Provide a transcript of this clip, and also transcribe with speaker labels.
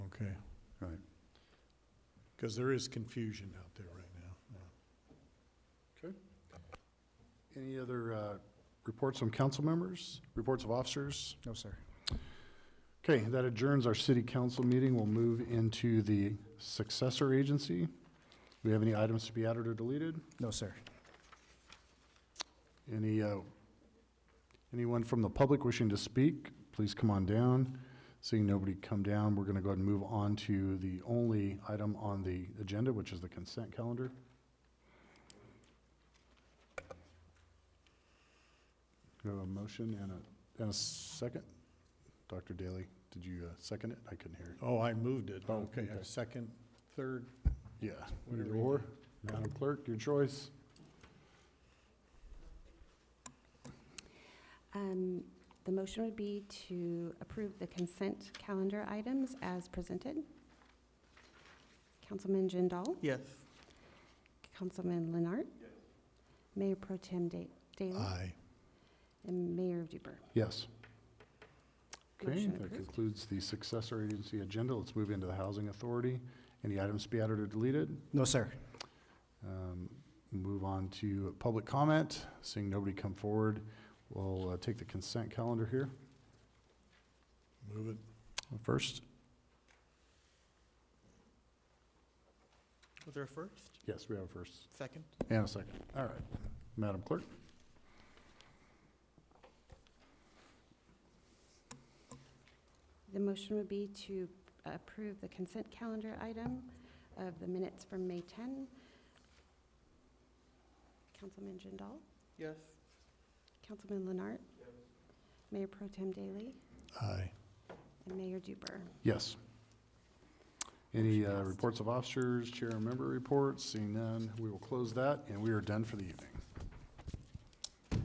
Speaker 1: Because there is confusion out there right now. yeah.
Speaker 2: Okay. Any other uh, reports from council members, reports of officers?
Speaker 3: No, sir.
Speaker 2: Okay, that adjourns our city council meeting. We'll move into the successor agency. Do we have any items to be added or deleted?
Speaker 3: No, sir.
Speaker 2: Any, uh, anyone from the public wishing to speak, please come on down. Seeing nobody come down, we're going to go ahead and move on to the only item on the agenda, which is the consent calendar. We have a motion and a, and a second? Dr. Daly, did you uh, second it? I couldn't hear.
Speaker 1: Oh, I moved it.
Speaker 2: Oh,
Speaker 1: Okay,
Speaker 2: okay.
Speaker 1: second, third,
Speaker 2: Yeah.
Speaker 1: Whatever
Speaker 2: Either
Speaker 1: you
Speaker 2: or, Madam Clerk, your choice.
Speaker 4: Um, The motion would be to approve the consent calendar items as presented. Councilman Jindal?
Speaker 5: Yes.
Speaker 4: Councilman Leonard? Mayor Pro Tem Da- Daley?
Speaker 1: aye.
Speaker 4: And Mayor Duper?
Speaker 2: Yes. Okay,
Speaker 4: Motion
Speaker 2: that
Speaker 4: approved.
Speaker 2: concludes the successor agency agenda. Let's move into the housing authority. Any items to be added or deleted?
Speaker 3: No, sir.
Speaker 2: Um, Move on to public comment. Seeing nobody come forward, we'll uh, take the consent calendar here
Speaker 1: Move it.
Speaker 2: first.
Speaker 5: Was there a first,
Speaker 2: Yes, we have a first
Speaker 5: second?
Speaker 2: and a second. All right. Madam Clerk?
Speaker 4: The motion would be to approve the consent calendar item of the minutes from May 10. Councilman Jindal?
Speaker 5: Yes.
Speaker 4: Councilman Leonard? Mayor Pro Tem Daley?
Speaker 1: Aye.
Speaker 4: And Mayor Duper?
Speaker 2: Yes. uh, Any
Speaker 4: Motion
Speaker 2: uh,
Speaker 4: passed.
Speaker 2: reports of officers, chair and member reports? Seeing none, we will close that, and we are done for the evening.